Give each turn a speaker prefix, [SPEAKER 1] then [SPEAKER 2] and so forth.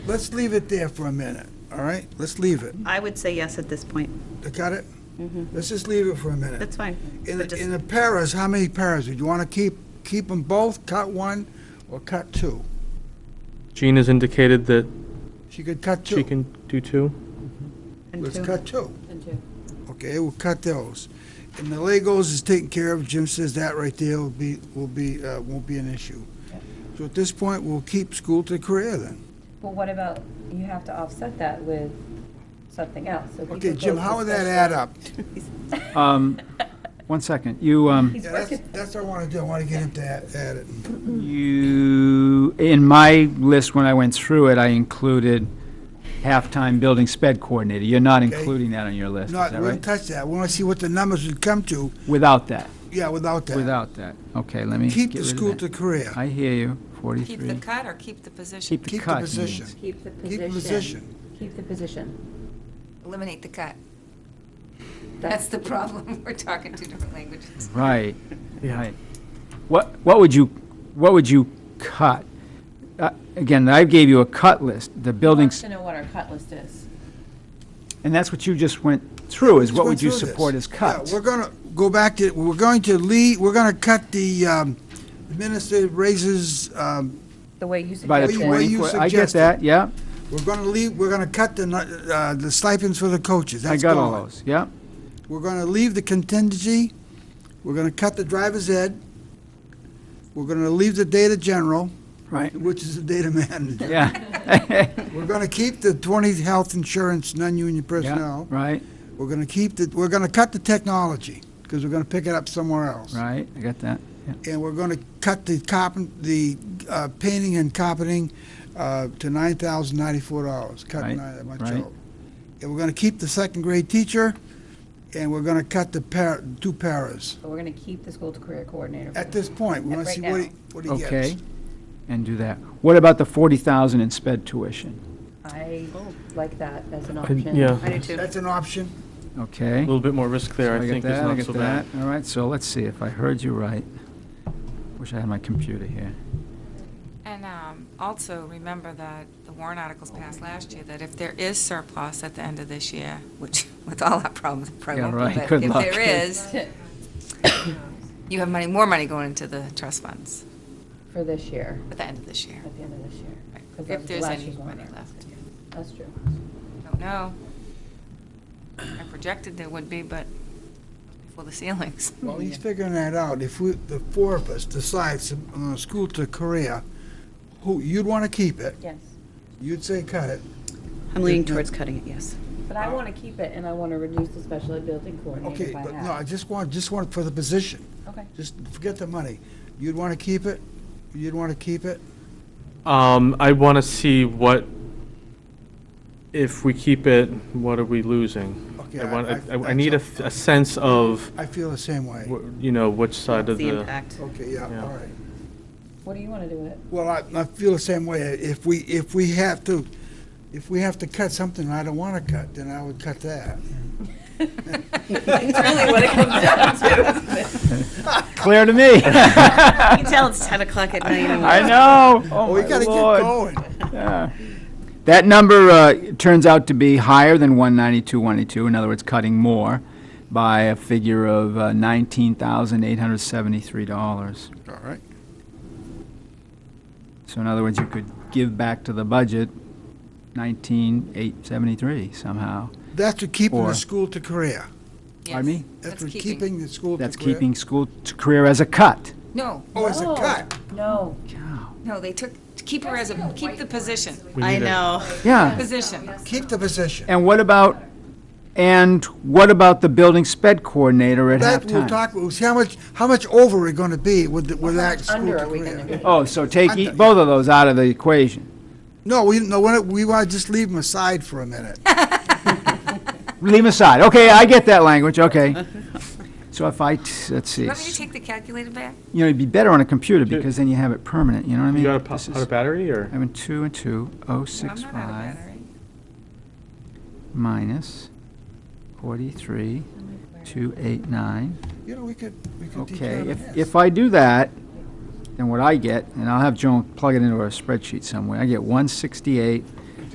[SPEAKER 1] let's leave it there for a minute, all right? Let's leave it.
[SPEAKER 2] I would say yes at this point.
[SPEAKER 1] Got it? Let's just leave it for a minute.
[SPEAKER 2] Mm-hmm. That's fine.
[SPEAKER 1] In
[SPEAKER 2] But
[SPEAKER 1] the,
[SPEAKER 2] just-
[SPEAKER 1] in the paras, how many paras? Would you want to keep, keep them both, cut one, or cut two?
[SPEAKER 3] Jean has indicated that
[SPEAKER 1] She could cut two.
[SPEAKER 3] she can do two.
[SPEAKER 2] and
[SPEAKER 1] Let's
[SPEAKER 2] two.
[SPEAKER 1] cut two. Okay, we'll cut those. And the Legos is taken care of. Jim says that right there will be, will be, uh, won't be an issue. So at this point, we'll keep school to career then.
[SPEAKER 4] Well, what about, you have to offset that with something else. So people
[SPEAKER 1] Okay, Jim,
[SPEAKER 4] go to
[SPEAKER 1] how would that
[SPEAKER 4] special-
[SPEAKER 1] add up?
[SPEAKER 5] Um, One second, you, um,
[SPEAKER 4] He's
[SPEAKER 1] Yeah, that's,
[SPEAKER 4] working,
[SPEAKER 1] that's what I want to do. I want to get him to add, add it.
[SPEAKER 5] you, in my list, when I went through it, I included half-time building sped coordinator. You're not including that on your list, is
[SPEAKER 1] Not,
[SPEAKER 5] that
[SPEAKER 1] we don't
[SPEAKER 5] right?
[SPEAKER 1] touch that. We want to see what the numbers would come to,
[SPEAKER 5] Without that,
[SPEAKER 1] yeah, without that.
[SPEAKER 5] without that. Okay, let me
[SPEAKER 1] Keep
[SPEAKER 5] get
[SPEAKER 1] the
[SPEAKER 5] rid of
[SPEAKER 1] school
[SPEAKER 5] that.
[SPEAKER 1] to career.
[SPEAKER 5] I hear you, 43.
[SPEAKER 6] Keep the cut or keep the position?
[SPEAKER 5] Keep the
[SPEAKER 1] Keep
[SPEAKER 5] cut.
[SPEAKER 1] the
[SPEAKER 5] he
[SPEAKER 1] position.
[SPEAKER 5] means.
[SPEAKER 4] keep the
[SPEAKER 1] Keep the
[SPEAKER 4] position.
[SPEAKER 1] position.
[SPEAKER 4] Keep the position.
[SPEAKER 6] Eliminate the cut. That's the problem. We're talking two different languages.
[SPEAKER 5] Right, right. What, what would you, what would you cut? Uh, Again, I gave you a cut list, the buildings,
[SPEAKER 4] To know what our cut list is.
[SPEAKER 5] and that's what you just went through, is what
[SPEAKER 1] Let's
[SPEAKER 5] would
[SPEAKER 1] go through
[SPEAKER 5] you
[SPEAKER 1] this.
[SPEAKER 5] support as cuts?
[SPEAKER 1] Yeah, we're gonna go back to, we're going to leave, we're gonna cut the um, administrative raises, um,
[SPEAKER 4] The way you
[SPEAKER 5] By the
[SPEAKER 4] suggested.
[SPEAKER 1] What you- what
[SPEAKER 5] twenty,
[SPEAKER 1] you
[SPEAKER 5] I get
[SPEAKER 1] suggested.
[SPEAKER 5] that, yeah,
[SPEAKER 1] we're gonna leave, we're gonna cut the, nu- uh, the stipends for the coaches,
[SPEAKER 5] I
[SPEAKER 1] that's
[SPEAKER 5] got all
[SPEAKER 1] gone.
[SPEAKER 5] those, yeah.
[SPEAKER 1] We're gonna leave the contingency, we're gonna cut the driver's ed, we're gonna leave the data general,
[SPEAKER 5] Right.
[SPEAKER 1] which is the data manager.
[SPEAKER 5] Yeah.
[SPEAKER 1] We're gonna keep the twenty health insurance, non-union
[SPEAKER 5] Yeah,
[SPEAKER 1] personnel.
[SPEAKER 5] right,
[SPEAKER 1] We're gonna keep the, we're gonna cut the technology, because we're gonna pick it up somewhere else.
[SPEAKER 5] right, I got that, yeah.
[SPEAKER 1] and we're going to cut the carpent, the uh, painting and carpeting uh, to nine thousand ninety-four dollars. Cut
[SPEAKER 5] Right,
[SPEAKER 1] nine- that much
[SPEAKER 5] right.
[SPEAKER 1] out. And we're going to keep the second grade teacher, and we're going to cut the par- two paras.
[SPEAKER 4] But we're going to keep the school to career coordinator.
[SPEAKER 1] At this point, we
[SPEAKER 4] At
[SPEAKER 1] want to
[SPEAKER 4] right
[SPEAKER 1] see what he what he gets.
[SPEAKER 5] Okay, and do that. What about the forty thousand in sped tuition?
[SPEAKER 4] I like that as an option.
[SPEAKER 3] yeah.
[SPEAKER 2] I do too.
[SPEAKER 1] That's an option.
[SPEAKER 3] A
[SPEAKER 5] Okay.
[SPEAKER 3] little bit more risk there, I
[SPEAKER 5] get
[SPEAKER 3] think, is
[SPEAKER 5] that, I
[SPEAKER 3] not
[SPEAKER 5] get
[SPEAKER 3] so bad.
[SPEAKER 5] that. All right, so let's see if I heard you right. Wish I had my computer here.
[SPEAKER 6] And um, also, remember that the warrant articles passed
[SPEAKER 4] Oh.
[SPEAKER 6] last year, that if there is surplus at the end of this year, which with all our problems, it probably
[SPEAKER 5] Yeah,
[SPEAKER 6] won't be,
[SPEAKER 5] right.
[SPEAKER 6] but
[SPEAKER 5] Good
[SPEAKER 6] if
[SPEAKER 5] luck.
[SPEAKER 6] there is, you have money, more money going into the trust funds
[SPEAKER 4] For this year,
[SPEAKER 6] at the end of this year.
[SPEAKER 4] at the end of this year.
[SPEAKER 6] right?
[SPEAKER 4] 'Cause that
[SPEAKER 6] If
[SPEAKER 4] was
[SPEAKER 6] there's
[SPEAKER 4] last
[SPEAKER 6] any
[SPEAKER 4] year's warrant
[SPEAKER 6] money
[SPEAKER 4] article.
[SPEAKER 6] left.
[SPEAKER 4] That's true.
[SPEAKER 6] Don't know. I projected there would be, but for the ceilings.
[SPEAKER 1] Well,
[SPEAKER 2] Hmm,
[SPEAKER 1] he's figuring that out. If we, the four of us decides on school to career, who, you'd want to keep it,
[SPEAKER 4] Yes.
[SPEAKER 1] you'd say cut it.
[SPEAKER 2] I'm leaning towards cutting it, yes.
[SPEAKER 4] But I want to keep it and I want to reduce the special ed building coordinator
[SPEAKER 1] Uh, Okay,
[SPEAKER 4] by
[SPEAKER 2] uh,
[SPEAKER 1] but no, I
[SPEAKER 4] half.
[SPEAKER 1] just want, just want for the position.
[SPEAKER 4] Okay.
[SPEAKER 1] Just forget the money. You'd want to keep it? You'd want to keep it?
[SPEAKER 3] Um, I want to see what, if we keep it, what are we losing?
[SPEAKER 1] Okay,
[SPEAKER 3] I want,
[SPEAKER 1] I-
[SPEAKER 3] I-
[SPEAKER 1] I-
[SPEAKER 3] I need a, f- a sense of,
[SPEAKER 1] I feel the same way.
[SPEAKER 3] wh- you know, which side of
[SPEAKER 2] The
[SPEAKER 3] the,
[SPEAKER 2] impact.
[SPEAKER 1] Okay, yeah,
[SPEAKER 3] Yeah.
[SPEAKER 1] all right.
[SPEAKER 4] What do you want to do with it?
[SPEAKER 1] Well, I, I feel the same way. If we, if we have to, if we have to cut something I don't want to cut, then I would cut that.
[SPEAKER 4] It's really what it comes down to.
[SPEAKER 5] Clear to me.
[SPEAKER 2] You can tell it's 10 o'clock at night. and-
[SPEAKER 5] I know, oh
[SPEAKER 1] Oh, we
[SPEAKER 5] my
[SPEAKER 1] gotta get
[SPEAKER 5] lord.
[SPEAKER 1] going.
[SPEAKER 5] That number uh, turns out to be higher than 192, 192, in other words, cutting more by a figure of uh, $19,873.
[SPEAKER 1] All right.
[SPEAKER 5] So in other words, you could give back to the budget 19,873 somehow.
[SPEAKER 1] That's for keeping the
[SPEAKER 5] Or-
[SPEAKER 1] school to career.
[SPEAKER 6] Yes.
[SPEAKER 5] Pardon me?
[SPEAKER 1] That's
[SPEAKER 6] That's
[SPEAKER 1] for
[SPEAKER 6] keeping.
[SPEAKER 1] keeping the school to career.
[SPEAKER 5] That's keeping school to career as a cut.
[SPEAKER 6] No,
[SPEAKER 1] Oh, it's a
[SPEAKER 4] No.
[SPEAKER 1] cut.
[SPEAKER 4] No,
[SPEAKER 6] no, they took, keep her as a, keep the position,
[SPEAKER 3] we
[SPEAKER 2] I
[SPEAKER 3] need a-
[SPEAKER 2] know.
[SPEAKER 5] Yeah.
[SPEAKER 6] position.
[SPEAKER 1] Keep the position.
[SPEAKER 5] And what about, and what about the building sped coordinator at
[SPEAKER 1] That,
[SPEAKER 5] halftime?
[SPEAKER 1] we'll talk, we'll see how much, how much over we're gonna be with, the- with that school
[SPEAKER 4] under
[SPEAKER 1] to
[SPEAKER 4] are we going to
[SPEAKER 1] career.
[SPEAKER 4] be?
[SPEAKER 5] Oh, so take e-
[SPEAKER 1] Under.
[SPEAKER 5] both of those out of the equation.
[SPEAKER 1] No, we, no, we're not- we want to just leave them aside for a minute.
[SPEAKER 5] Leave aside. Okay, I get that language, okay. So if I, t- let's see,
[SPEAKER 6] Want me to take the calculator back?
[SPEAKER 5] you know, it'd be better on a computer because then you have it permanent, you know what I mean?
[SPEAKER 3] you got a
[SPEAKER 5] This
[SPEAKER 3] po-
[SPEAKER 5] is-
[SPEAKER 3] powder battery or?
[SPEAKER 5] Having two and two, oh
[SPEAKER 6] No, I'm
[SPEAKER 5] six
[SPEAKER 6] not out of
[SPEAKER 5] five
[SPEAKER 6] battery.
[SPEAKER 5] minus forty-three, two eight nine.
[SPEAKER 1] You know, we could, we could teach
[SPEAKER 5] Okay,
[SPEAKER 1] her
[SPEAKER 5] if,
[SPEAKER 1] math.
[SPEAKER 5] if I do that, then what I get, and I'll have Joan plug it into our spreadsheet somewhere, I get one sixty-eight,